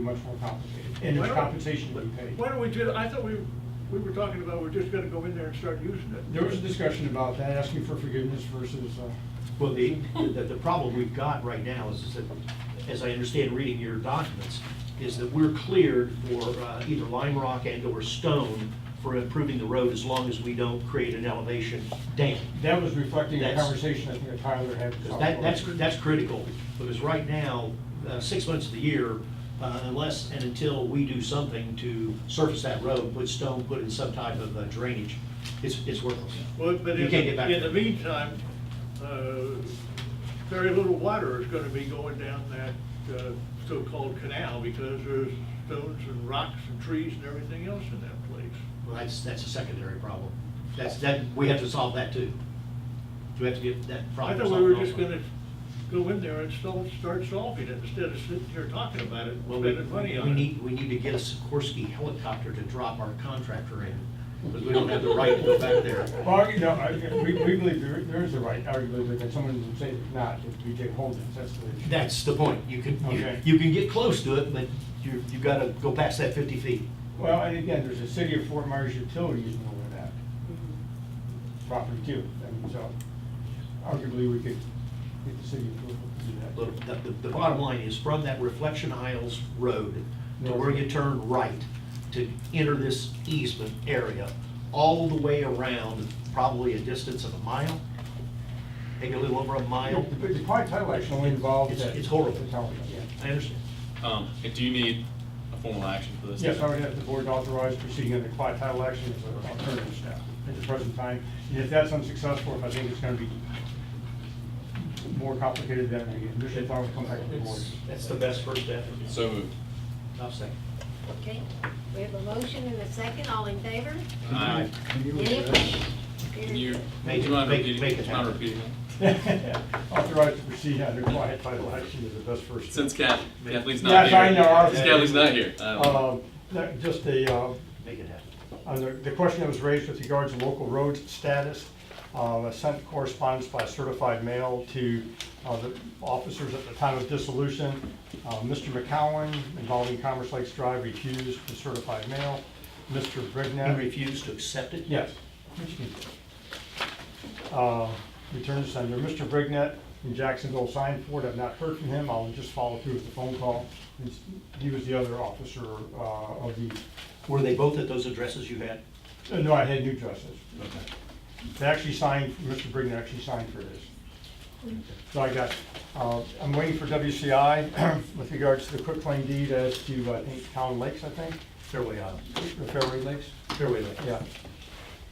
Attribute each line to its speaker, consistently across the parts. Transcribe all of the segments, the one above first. Speaker 1: be much more complicated, and
Speaker 2: Why
Speaker 1: there's
Speaker 2: don't-
Speaker 1: compensation to be paid.
Speaker 2: Why don't we do, that? I thought we, we were talking about we're just gonna go in there and start using it.
Speaker 1: There was a discussion about that, asking for forgiveness versus, uh,
Speaker 3: Well, the, the, the problem we've got right now is that, as I understand reading your documents, is that we're cleared for uh, either lime rock and or stone for improving the road as long as we don't create an elevation dam.
Speaker 1: that was reflecting the
Speaker 3: That's-
Speaker 1: conversation I think that Tyler had. with
Speaker 3: Because that, that's,
Speaker 1: Southport.
Speaker 3: that's critical, because right now, uh, six months of the year, uh, unless and until we do something to surface that road, put stone, put in some type of uh, drainage, it's, it's worthless.
Speaker 2: Well, but
Speaker 3: You
Speaker 2: in,
Speaker 3: can't get back
Speaker 2: the- in
Speaker 3: there.
Speaker 2: the meantime, uh, very little water is gonna be going down that uh, so-called canal because there's stones and rocks and trees and everything else in that place.
Speaker 3: Well, that's, that's a secondary problem. That's, that, we have to solve that too. We have to get that
Speaker 2: I
Speaker 3: problem
Speaker 2: thought
Speaker 3: solved.
Speaker 2: we were just
Speaker 3: also.
Speaker 2: gonna go in there and sol- start solving it instead of sitting here talking about it,
Speaker 3: Well, we,
Speaker 2: spending money on it.
Speaker 3: we need, we need to get a Sikorsky helicopter to drop our contractor in, because we don't have the right to go back there.
Speaker 1: Well, you know, I, we, we believe there, there is a right, arguably, but someone would say there's not, if we take hold of it, that's the issue.
Speaker 3: That's the point. You can, you-
Speaker 1: Okay.
Speaker 3: you can get close to it, but you, you gotta go past that fifty feet.
Speaker 1: Well, and again, there's a city of Fort Myers utilities in over that
Speaker 3: Mm-hmm.
Speaker 1: property too, and so arguably we could get the city approval to do that.
Speaker 3: Look, the, the, the bottom line is from that Reflection Isles Road to where you turn right to enter this easement area, all the way around, probably a distance of a mile, maybe a little over a mile.
Speaker 1: But the quiet title action only involves
Speaker 3: It's-
Speaker 1: that.
Speaker 3: it's horrible.
Speaker 1: the tower, yeah.
Speaker 3: I understand.
Speaker 4: Um, and do you need a formal action for this?
Speaker 1: Yes, I would have the board authorize proceeding under quiet title action as an alternative step at the present time. And if that's unsuccessful, if I think it's gonna be more complicated than I initially thought, we'd come back to the board.
Speaker 3: That's the best first step.
Speaker 4: So moved.
Speaker 3: I'll second.
Speaker 5: Okay, we have a motion and a second, all in favor?
Speaker 4: Aye.
Speaker 5: Any opposed?
Speaker 4: Can you,
Speaker 3: Make
Speaker 4: do
Speaker 3: it-
Speaker 4: you mind
Speaker 3: make-
Speaker 4: repeating,
Speaker 3: make it
Speaker 4: do you mind
Speaker 3: happen.
Speaker 4: repeating
Speaker 1: Authorized to proceed under quiet title action is the best
Speaker 4: that?
Speaker 1: first. step.
Speaker 4: Since Kath, Kathleen's not
Speaker 1: Yes,
Speaker 4: here.
Speaker 1: I know. I-
Speaker 4: Since Kathleen's not here. Um, I don't-
Speaker 1: Uh, no, Just a, uh,
Speaker 3: Make it happen.
Speaker 1: on the, the question that was raised with regards to local roads status, uh, I sent correspondence by certified mail to, uh, the officers at the time of dissolution. Uh, Mr. McCowen involving Commerce Lakes Drive refused the certified mail. Mr.
Speaker 3: He
Speaker 1: Brignac.
Speaker 3: refused to accept it?
Speaker 1: Yes. Uh, Return to sender, Mr. Brignett in Jacksonville signed for it, I've not heard from him, I'll just follow through with the phone call. He's- He was the other officer uh, of the,
Speaker 3: Were they both at those addresses you had?
Speaker 1: uh, no, I had new justice. They actually signed, Mr. Brignett actually signed for this. So I got, uh, I'm waiting for WCI with regards to the quick claim deed as to, uh, I think, Town Lakes, I think,
Speaker 3: Fairway Isle.
Speaker 1: or Fairway Lakes,
Speaker 3: Fairway Lake.
Speaker 1: yeah.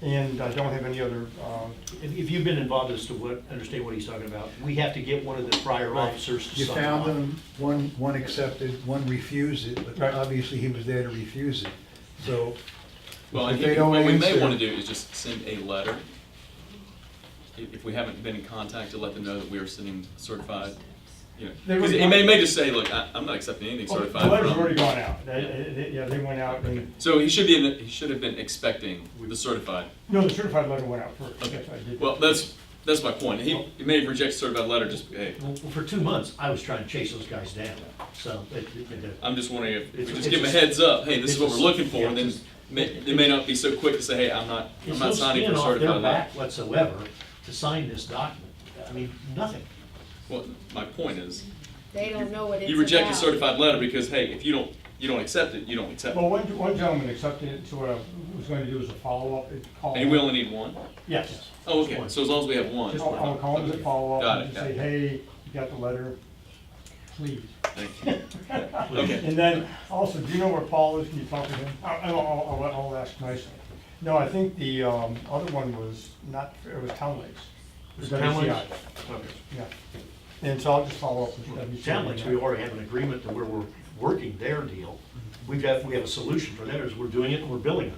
Speaker 1: And I don't have any other uh,
Speaker 3: If, if you've been involved as to what, understand what he's talking about, we have to get one of the prior
Speaker 6: Right.
Speaker 3: officers to
Speaker 6: You
Speaker 3: sign
Speaker 6: found
Speaker 3: off.
Speaker 6: them, one, one accepted, one refused it,
Speaker 1: Right.
Speaker 6: but obviously he was there to refuse it. So
Speaker 4: Well, I
Speaker 6: if
Speaker 4: think
Speaker 6: they don't
Speaker 4: what we may
Speaker 6: answer-
Speaker 4: want to do is just send a letter. If, if we haven't been in contact, to let them know that we are sending certified, you know,
Speaker 1: They
Speaker 4: 'cause
Speaker 1: were-
Speaker 4: it may, may just say, look, I, I'm not accepting anything
Speaker 1: Oh,
Speaker 4: certified from.
Speaker 1: The letter's already gone out. They- they- they- Yeah, they went out and,
Speaker 4: So he should be, in- he should have been expecting the certified.
Speaker 1: no, the certified letter went out first.
Speaker 4: Okay,
Speaker 1: Yes, I did.
Speaker 4: well, that's, that's my point. He, he may have rejected certified letter just, hey,
Speaker 3: Well, for two months, I was trying to chase those guys down, so uh, it, it, it-
Speaker 4: I'm just wondering if, if we
Speaker 3: It's-
Speaker 4: just give them a
Speaker 3: it's just-
Speaker 4: heads up, hey, this is what we're
Speaker 3: it's
Speaker 4: looking
Speaker 3: just-
Speaker 4: for,
Speaker 3: yeah,
Speaker 4: and then
Speaker 3: just-
Speaker 4: may, they may not be so quick to say, hey, I'm not, I'm
Speaker 3: it's no
Speaker 4: not signing
Speaker 3: skin
Speaker 4: for
Speaker 3: off their
Speaker 4: certified letter.
Speaker 3: back whatsoever to sign this document. I mean, nothing.
Speaker 4: Well, my point is,
Speaker 5: They don't know what it's about.
Speaker 4: you reject a certified letter because, hey, if you don't, you don't accept it, you don't accept
Speaker 1: Well,
Speaker 4: it.
Speaker 1: one, one gentleman accepted it, so what I was going to do is a follow-up. it- call
Speaker 4: And we only need one?
Speaker 1: Yes.
Speaker 4: Oh,
Speaker 3: Just
Speaker 4: okay,
Speaker 3: one.
Speaker 4: so as long as we have one.
Speaker 1: Just I'll I'll call him as a follow-up
Speaker 4: Got
Speaker 1: and
Speaker 4: it,
Speaker 1: just say,
Speaker 4: got it.
Speaker 1: hey, you got the letter, please.
Speaker 4: Thank you. Okay,
Speaker 1: And then also, do you know where Paul is? Can you talk to him? I- I'll, I'll, I'll, I'll ask nicely. No, I think the, um, other one was not, it was Town Lakes. It was
Speaker 3: Town Lakes?
Speaker 1: WCI. Yeah. And so I'll just follow up with WCI.
Speaker 3: Sound like we already have an agreement to where we're working their deal. We've got, we have a solution for theirs, we're doing it and we're billing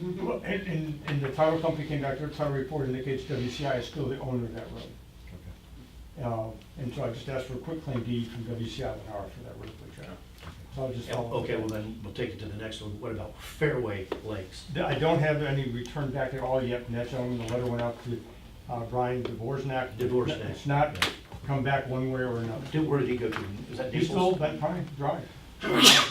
Speaker 3: them.
Speaker 1: Well, And, and, and the title company came back, their title report indicates WCI is still the owner of that road. Uh, And so I just asked for a quick claim deed from WCI and R for that road, which I, so I'll just
Speaker 3: Yeah,
Speaker 1: follow. up.
Speaker 3: Okay, well then, we'll take it to the next one. What about Fairway Lakes?
Speaker 1: Th- I don't have any return back at all yet, and that's only the letter went out to uh, Brian Dvorak.
Speaker 3: Dvorak.
Speaker 1: It's not come back one way or another.
Speaker 3: Did- Where did he go to? Is that
Speaker 1: He's still
Speaker 3: Diesel's?
Speaker 1: Bent Pine Drive.